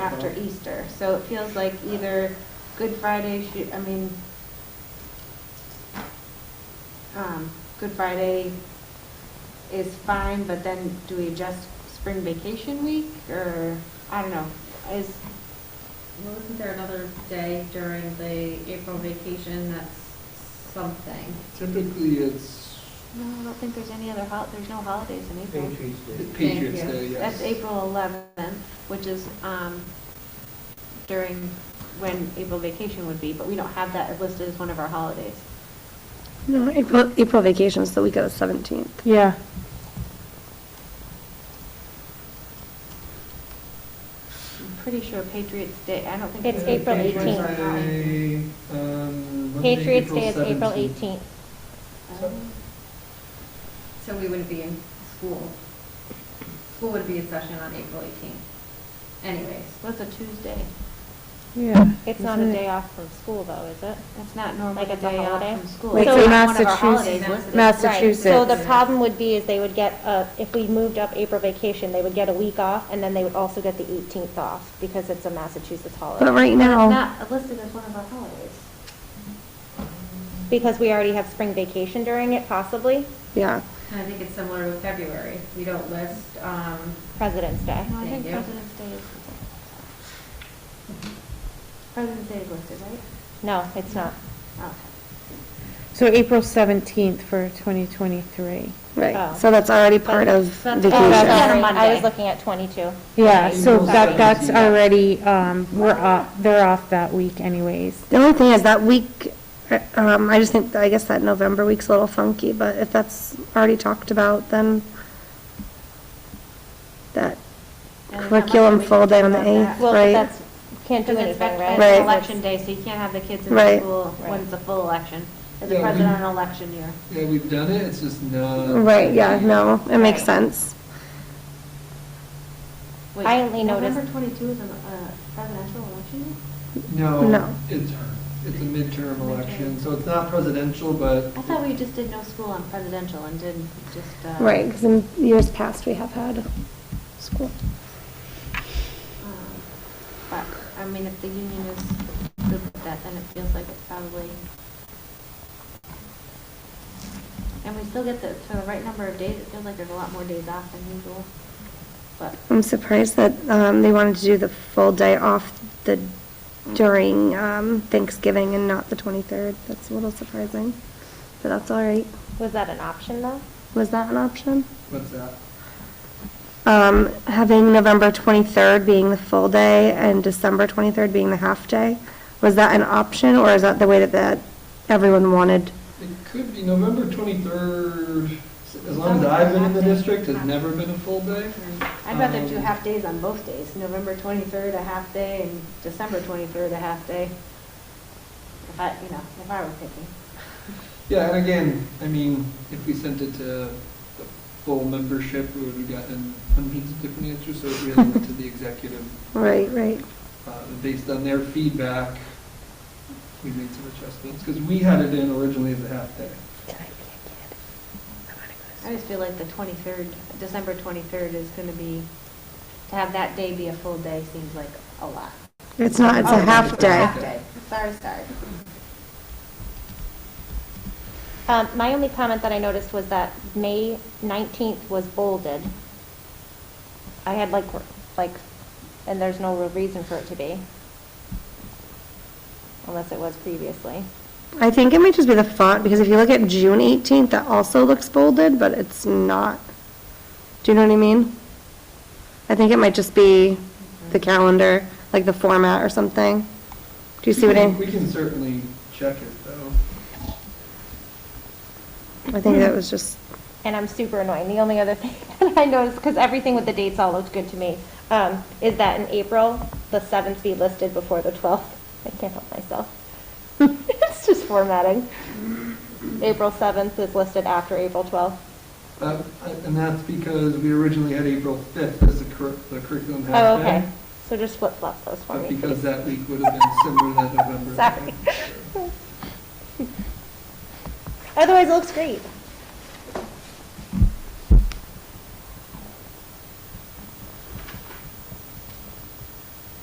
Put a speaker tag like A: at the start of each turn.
A: after Easter. So it feels like either Good Friday should, I mean, um, Good Friday is fine, but then do we adjust spring vacation week or, I don't know, is,
B: Well, isn't there another day during the April vacation that's something?
C: Typically, it's
A: no, I don't think there's any other hol, there's no holidays in April.
D: Patriots Day.
C: Patriots
B: you.
C: Day, yes.
A: That's April eleventh, which is, um, during when April vacation would be, but we don't have that listed as one of our holidays.
E: No, April, April vacation's the week of the 17th.
F: Yeah.
A: I'm pretty sure Patriots Day, I don't think.
G: It's
C: Uh,
G: April
C: Patriots
G: 18th.
C: Day, um, Monday,
G: Patriots Day is April
C: 17th.
G: 18th.
A: Um,
B: So we wouldn't be in school. School would be in session on April 18th. Anyways,
A: What's a Tuesday?
F: Yeah.
G: It's not a day off from school, though, is it?
A: That's not normally
G: Like
A: a
G: it's a
A: day off
G: holiday?
A: from school.
F: Wait,
A: It's
G: so
A: not
F: Massachusetts-
A: one of our holidays listed.
F: Massachusetts-
G: Right, so the
F: Massachusetts.
G: problem would be is they would get, uh, if we moved up April vacation, they would get a week off, and then they would also get the 18th off, because it's a Massachusetts
E: But
G: holiday.
E: right
A: But it's
E: now,
A: not listed as one of our holidays.
G: Because we already have spring vacation during it, possibly,
E: yeah,
B: and I think it's similar with February. We don't list, um,
G: President's Day.
A: No, I
B: Thank
A: think
B: you.
A: President's Day is. Mm-hmm. President's Day is listed, right?
G: No, it's not.
A: Oh,
F: So April 17th for 2023.
E: right.
G: Oh.
E: So that's already part of
G: Oh,
E: vacation.
G: sorry, I
A: Monday.
G: was looking at 22.
F: Yeah, so
C: April
F: that, that's
C: 17th.
F: already, um, we're off, they're off that week anyways.
E: The only thing is that week, uh, um, I just think, I guess that November week's a little funky, but if that's already talked about, then that
A: And there's not much
E: curriculum
A: we can
E: full day
A: do
E: on the
A: about that.
E: 8th,
G: Well, but
E: right?
G: that's, can't do
A: Because it's
G: anything,
A: vet-
G: right?
A: it's
E: Right.
A: election day, so you can't have the kids in the
E: Right.
A: school when
G: Right.
A: it's a full election. As a
C: Yeah, we-
A: president on election year.
C: Yeah, we've done it, it's just not.
E: Right, yeah, no, it makes
G: Right.
E: sense.
A: Wait,
G: I only noticed-
A: November twenty-two is a uh, presidential election year?
C: No,
E: No.
C: it's, it's a midterm election, so it's not presidential, but
A: I thought we just did no school on presidential and did just. uh,
E: Right, because in years past, we have had school.
A: um, But, I mean, if the union is good with that, then it feels like it's probably. And we still get the, to the right number of days, it feels like there's a lot more days off than usual. But,
E: I'm surprised that um, they wanted to do the full day off the, during um, Thanksgiving and not the 23rd. That's a little surprising, but that's all right.
G: Was that an option, though?
E: Was that an option?
C: what's that?
E: Um, Having November 23rd being the full day and December 23rd being the half day, was that an option or is that the way that, that everyone wanted?
C: It could be November 23rd, as long as I've been in the district, it's never been a full day.
A: I'd rather do
C: Um,
A: half days on both days, November twenty-third a half day and December twenty-third a half day. If I, you know, if I were picking.
C: Yeah, and again, I mean, if we sent it to the full membership, we would have gotten hundreds of different answers, so it really went to the executive.
E: Right, right.
C: Uh, and Based on their feedback, we made some adjustments, because we had it in originally as a half day.
A: I just feel like the 23rd, December 23rd is going to be, to have that day be a full day seems like a lot.
E: It's not, it's
A: Oh,
E: a half
C: it's a
E: day.
C: half day.
A: Sorry, sorry.
G: Um, my only comment that I noticed was that May 19th was bolded. I had like, like, and there's no real reason for it to be. Unless it was previously.
E: I think it might just be the font, because if you look at June 18th, that also looks bolded, but it's not. Do you know what I mean? I think it might just be the calendar, like the format or something. Do you see what I,
C: We can certainly check it, though.
E: I think that was just,
G: And I'm super annoying. The only other thing that I noticed, because everything with the dates all looked good to me, um, is that in April, the 7th be listed before the 12th. I can't help myself. It's just formatting. April 7th is listed after April 12th.
C: Uh, And that's because we originally had April 5th as the curr- the curriculum half day.
G: Oh, okay. So just flip flop those for
C: But
G: me,
C: because
G: please.
C: that week would have been similar to that November.
G: Sorry. Otherwise, it looks great.